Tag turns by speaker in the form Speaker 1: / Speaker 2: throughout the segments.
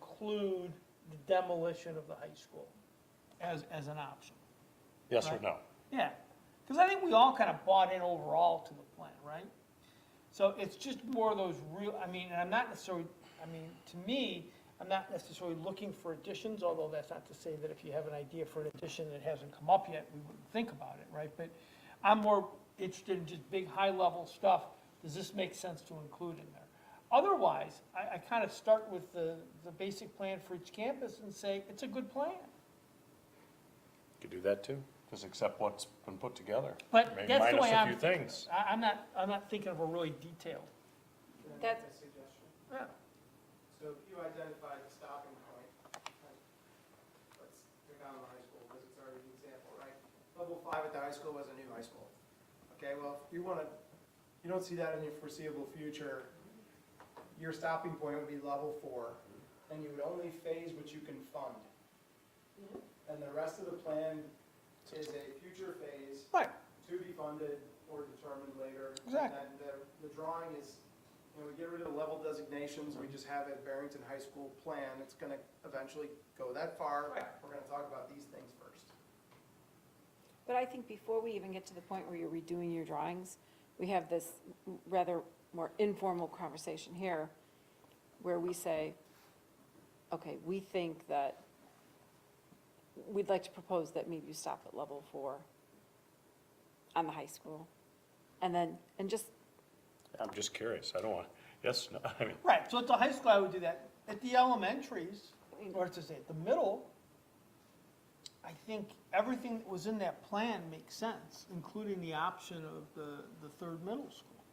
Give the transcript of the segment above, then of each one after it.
Speaker 1: include the demolition of the high school as, as an option?
Speaker 2: Yes or
Speaker 1: Right.
Speaker 2: no?
Speaker 1: Yeah, because I think we all kind of bought in overall to the plan, right? So it's just more of those real, I mean, and I'm not necessarily, I mean, to me, I'm not necessarily looking for additions, although that's not to say that if you have an idea for an addition that hasn't come up yet, we wouldn't think about it, right? But I'm more interested in just big, high-level stuff. Does this make sense to include in there? Otherwise, I, I kind of start with the, the basic plan for each campus and say, it's a good plan.
Speaker 2: Could do that too, just accept what's been put together.
Speaker 1: But
Speaker 2: Maybe
Speaker 1: that's the way I'm.
Speaker 2: Minus a few things.
Speaker 1: I, I'm not, I'm not thinking of a really detailed.
Speaker 3: That's-
Speaker 4: A suggestion.
Speaker 1: Yeah.
Speaker 4: So if you identify the stopping point, like, let's pick on the high school, because it's already an example, right? Level five at the high school was a new high school. Okay, well, if you want to, you don't see that in your foreseeable future, your stopping point would be level four, and you would only phase what you can fund. And the rest of the plan is a future phase
Speaker 1: Right,
Speaker 4: to be funded or determined later.
Speaker 1: Exactly.
Speaker 4: And the, the drawing is, you know, we get rid of the level designations, we just have a Barrington High School plan, it's gonna eventually go that far.
Speaker 1: Right.
Speaker 4: We're gonna talk about these things first.
Speaker 3: But I think before we even get to the point where you're redoing your drawings, we have this rather more informal conversation here where we say, okay, we think that, we'd like to propose that maybe you stop at level four on the high school. And then, and just,
Speaker 2: I'm just curious, I don't want, yes, no, I mean,
Speaker 1: right, so at the high school, I would do that. At the elementaries, or to say, at the middle, I think everything that was in that plan makes sense, including the option of the, the third middle school,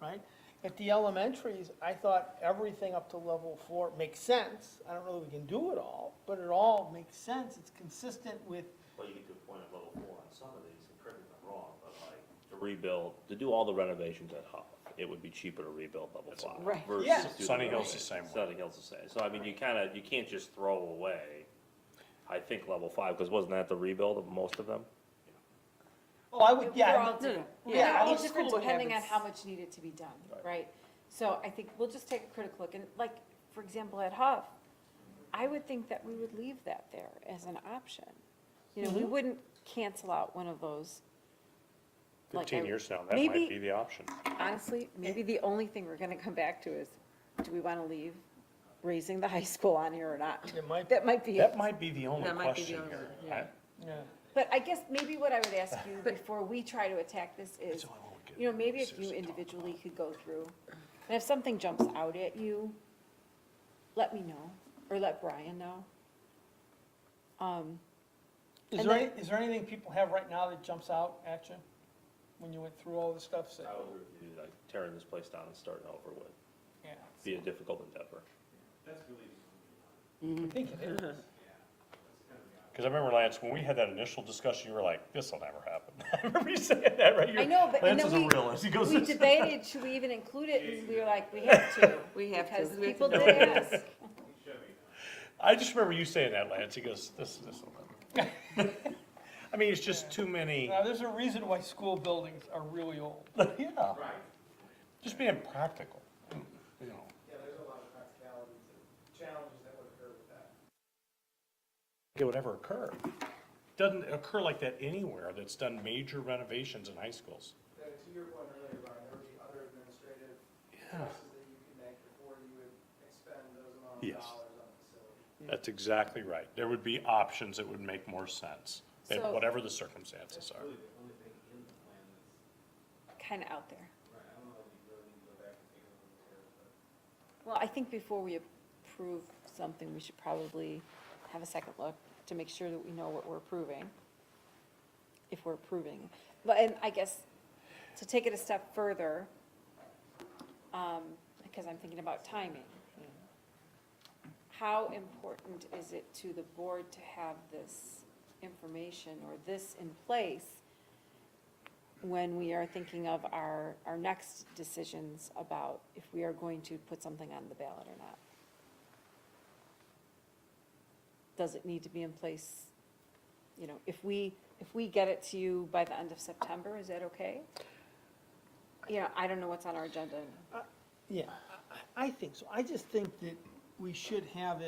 Speaker 1: right? At the elementaries, I thought everything up to level four makes sense. I don't know that we can do it all, but it all makes sense. It's consistent with,
Speaker 5: Well, you get to a point at level four on some of these, and correct me if I'm wrong, but like, to rebuild, to do all the renovations at Huff, it would be cheaper to rebuild level five.
Speaker 3: Right.
Speaker 5: versus
Speaker 1: Yeah.
Speaker 5: do the
Speaker 2: Sunny Hill's the
Speaker 5: renovations.
Speaker 2: same way.
Speaker 5: Sunny Hill's the same, so I mean, you kinda, you can't just throw away, I think, level five, because wasn't that the rebuild of most of them?
Speaker 1: oh, I would, yeah.
Speaker 3: They're
Speaker 1: I
Speaker 3: all
Speaker 1: would-
Speaker 2: Hmm.
Speaker 3: different.
Speaker 1: Yeah,
Speaker 3: They're
Speaker 1: all
Speaker 3: all
Speaker 1: the
Speaker 3: different
Speaker 1: school would have
Speaker 3: depending on
Speaker 1: its-
Speaker 3: how much needed to be done, right? So I think we'll just take a critical look, and like, for example, at Huff, I would think that we would leave that there as an option. You know,
Speaker 2: Mm-hmm.
Speaker 3: we wouldn't cancel out one of those, Like
Speaker 2: fifteen
Speaker 3: I-
Speaker 2: years now, that
Speaker 3: maybe-
Speaker 2: might be the option.
Speaker 3: honestly, maybe the only thing we're gonna come back to is, do we wanna leave raising the high school on here or not?
Speaker 1: It might be.
Speaker 3: That might be it.
Speaker 2: That might be the only
Speaker 6: That might be the
Speaker 2: question
Speaker 6: only-
Speaker 2: here.
Speaker 6: yeah.
Speaker 2: I-
Speaker 1: Yeah.
Speaker 3: But I guess maybe what I would ask you before we try to attack this
Speaker 2: that's
Speaker 3: is,
Speaker 2: all I wanna get
Speaker 3: you know, maybe if you
Speaker 2: seriously talk
Speaker 3: individually could go through, and if something jumps out at you, let me know, or let Brian know. Um,
Speaker 1: Is
Speaker 3: And
Speaker 1: there,
Speaker 3: then-
Speaker 1: any- is there anything people have right now that jumps out at you when you went through all the stuff? So,
Speaker 5: I would review, like, tearing this place down and starting over would
Speaker 1: yeah,
Speaker 5: be a difficult endeavor.
Speaker 1: I think it is.
Speaker 2: Cause I remember Lance, when we had that initial discussion, you were like, this'll never happen. I remember you saying that, right?
Speaker 3: I know, but, and
Speaker 2: Lance
Speaker 3: then
Speaker 2: is
Speaker 3: we,
Speaker 2: a realist, he goes,
Speaker 3: we
Speaker 2: "This-
Speaker 3: debated, should we even include it, and we were like, we have to,
Speaker 6: We have to.
Speaker 3: because
Speaker 6: We have to
Speaker 3: people
Speaker 6: do
Speaker 3: did
Speaker 6: it.
Speaker 3: ask.
Speaker 2: I just remember you saying that, Lance, he goes, this, this'll never. happen." I mean, it's just too many,
Speaker 1: Now, there's a reason why school buildings are really old.
Speaker 2: yeah,
Speaker 4: Right.
Speaker 2: just being practical, you know.
Speaker 4: Yeah, there's a lot of practicalities and challenges that would occur with that.
Speaker 2: it would ever occur. Doesn't occur like that anywhere that's done major renovations in high schools.
Speaker 4: Then to your point earlier, Brian, there would be other administrative choices that you could make before you would expend those amount of
Speaker 2: Yes.
Speaker 4: dollars on the facility.
Speaker 2: That's exactly right. There would be options that would make more sense, at
Speaker 3: So-
Speaker 2: whatever the circumstances are.
Speaker 3: kind of out there. Well, I think before we approve something, we should probably have a second look to make sure that we know what we're approving, if we're approving. But, and I guess, to take it a step further, um, because I'm thinking about timing. How important is it to the board to have this information or this in place when we are thinking of our, our next decisions about if we are going to put something on the ballot or not. Does it need to be in place, you know, if we, if we get it to you by the end of September, is that okay? You know, I don't know what's on our agenda.
Speaker 1: Yeah, I- I, I think so. I just think that we should have it.